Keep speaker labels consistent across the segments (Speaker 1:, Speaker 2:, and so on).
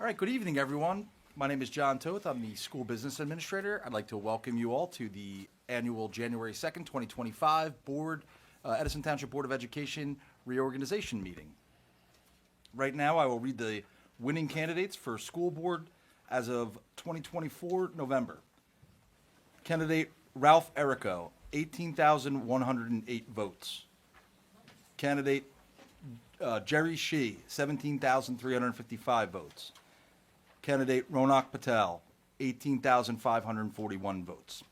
Speaker 1: All right, good evening, everyone. My name is John Toth. I'm the School Business Administrator. I'd like to welcome you all to the annual January 2nd, 2025 Board, uh, Edison Township Board of Education reorganization meeting. Right now, I will read the winning candidates for school board as of 2024 November. Candidate Ralph Errico, 18,108 votes. Candidate uh, Jerry Shi, 17,355 votes. Candidate Ronak Patel, 18,541 votes.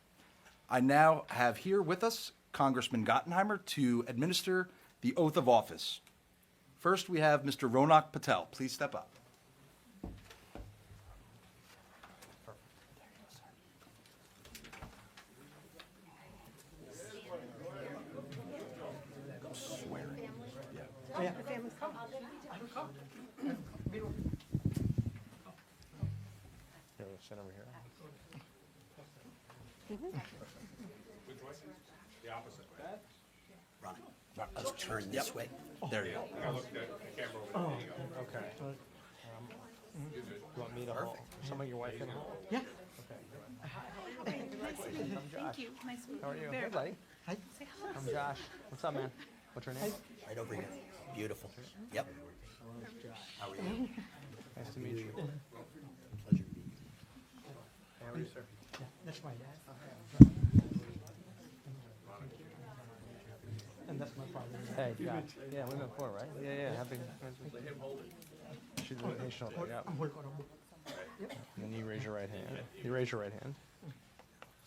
Speaker 1: I now have here with us Congressman Gottenheimer to administer the oath of office. First, we have Mr. Ronak Patel. Please step up. Swearing. Yeah.
Speaker 2: Here, we'll sit over here.
Speaker 3: Right, Let's turn this way.
Speaker 1: There you go.
Speaker 2: Okay. Um, You want me to hold, somebody your wife can hold?
Speaker 4: Yeah.
Speaker 5: Nice to meet you. Thank you. Nice to meet you.
Speaker 2: How are you?
Speaker 5: Very
Speaker 2: Hey, buddy.
Speaker 4: Hi.
Speaker 5: Say hello.
Speaker 2: I'm Josh. What's up, man? What's your name?
Speaker 3: Right over here. Beautiful. Yep. How are you?
Speaker 2: Nice to meet you.
Speaker 3: Pleasure to meet you.
Speaker 2: How are you, sir?
Speaker 4: That's my dad. And that's my father.
Speaker 2: Hey, Josh. Yeah, we met before, right? Yeah, yeah, happy. Let him hold it. She's on his shoulder, yeah. And then you raise your right hand. You raise your right hand.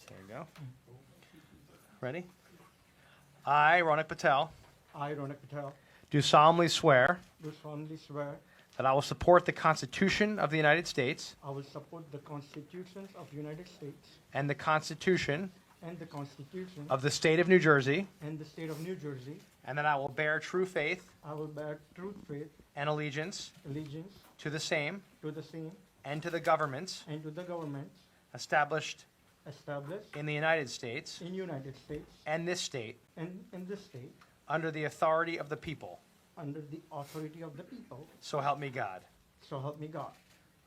Speaker 2: There you go. Ready? I, Ronak Patel,
Speaker 4: I, Ronak Patel,
Speaker 2: do solemnly swear
Speaker 4: do solemnly swear
Speaker 2: that I will support the Constitution of the United States
Speaker 4: I will support the constitutions of the United States
Speaker 2: and the Constitution
Speaker 4: and the Constitution
Speaker 2: of the State of New Jersey,
Speaker 4: and the state of New Jersey.
Speaker 2: and that I will bear true faith
Speaker 4: I will bear true faith,
Speaker 2: and allegiance
Speaker 4: allegiance
Speaker 2: to the same
Speaker 4: to the same
Speaker 2: and to the governments
Speaker 4: and to the governments
Speaker 2: established
Speaker 4: established
Speaker 2: in the United States
Speaker 4: in United States
Speaker 2: and this state
Speaker 4: and in this state
Speaker 2: under the authority of the people.
Speaker 4: under the authority of the people.
Speaker 2: So help me God.
Speaker 4: So help me God.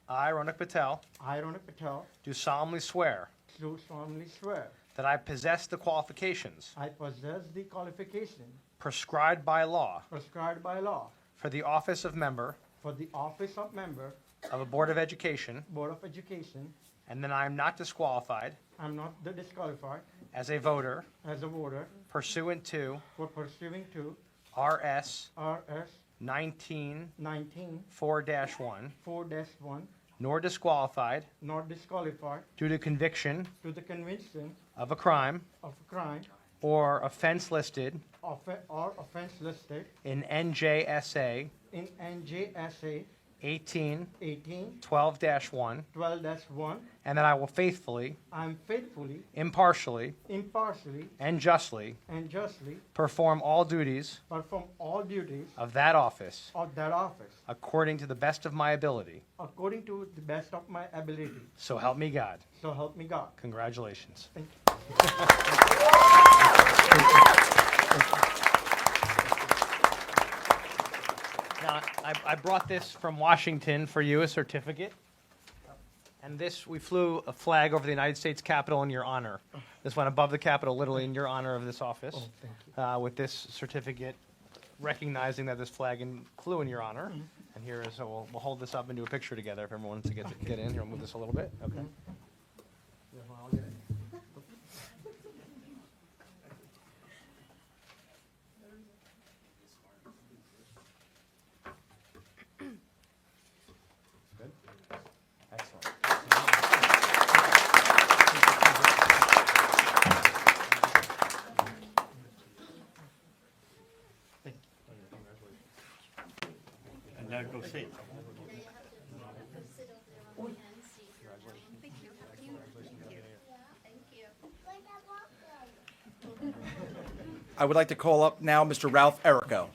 Speaker 2: I, Ronak Patel,
Speaker 4: I, Ronak Patel,
Speaker 2: do solemnly swear
Speaker 4: do solemnly swear
Speaker 2: that I possess the qualifications
Speaker 4: I possess the qualification
Speaker 2: prescribed by law
Speaker 4: prescribed by law
Speaker 2: for the office of member
Speaker 4: for the office of member,
Speaker 2: of a Board of Education,
Speaker 4: Board of Education.
Speaker 2: and that I am not disqualified
Speaker 4: I'm not the disqualified
Speaker 2: as a voter
Speaker 4: as a voter
Speaker 2: pursuant to
Speaker 4: for pursuing to
Speaker 2: RS
Speaker 4: RS
Speaker 2: 19
Speaker 4: 19
Speaker 2: 4-1,
Speaker 4: 4-1,
Speaker 2: nor disqualified
Speaker 4: not disqualified
Speaker 2: due to conviction
Speaker 4: to the conviction
Speaker 2: of a crime
Speaker 4: of a crime
Speaker 2: or offense listed
Speaker 4: offe- or offense listed
Speaker 2: in NJSA
Speaker 4: in NJSA
Speaker 2: 18
Speaker 4: 18
Speaker 2: 12-1,
Speaker 4: 12-1.
Speaker 2: and that I will faithfully,
Speaker 4: I'm faithfully,
Speaker 2: impartially,
Speaker 4: impartially,
Speaker 2: and justly
Speaker 4: and justly
Speaker 2: perform all duties
Speaker 4: perform all duties
Speaker 2: of that office
Speaker 4: of that office
Speaker 2: according to the best of my ability.
Speaker 4: according to the best of my ability.
Speaker 2: So help me God.
Speaker 4: So help me God.
Speaker 2: Congratulations.
Speaker 4: Thank you.
Speaker 2: Now, I, I brought this from Washington for you, a certificate. And this, we flew a flag over the United States Capitol in your honor. This went above the Capitol, literally in your honor of this office.
Speaker 4: thank
Speaker 2: Uh, with this certificate recognizing that this flag in, flew in your honor. And here is, so we'll, we'll hold this up and do a picture together if everyone wants to get, get in. Here, I'll move this a little bit. Okay. Excellent.
Speaker 6: And now go see.
Speaker 5: Thank you. Thank you. Thank you.
Speaker 1: I would like to call up now Mr. Ralph Errico.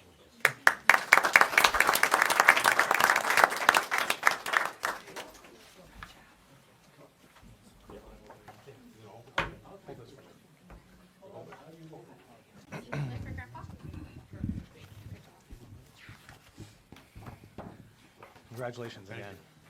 Speaker 5: Play for Grandpa?
Speaker 2: Congratulations again.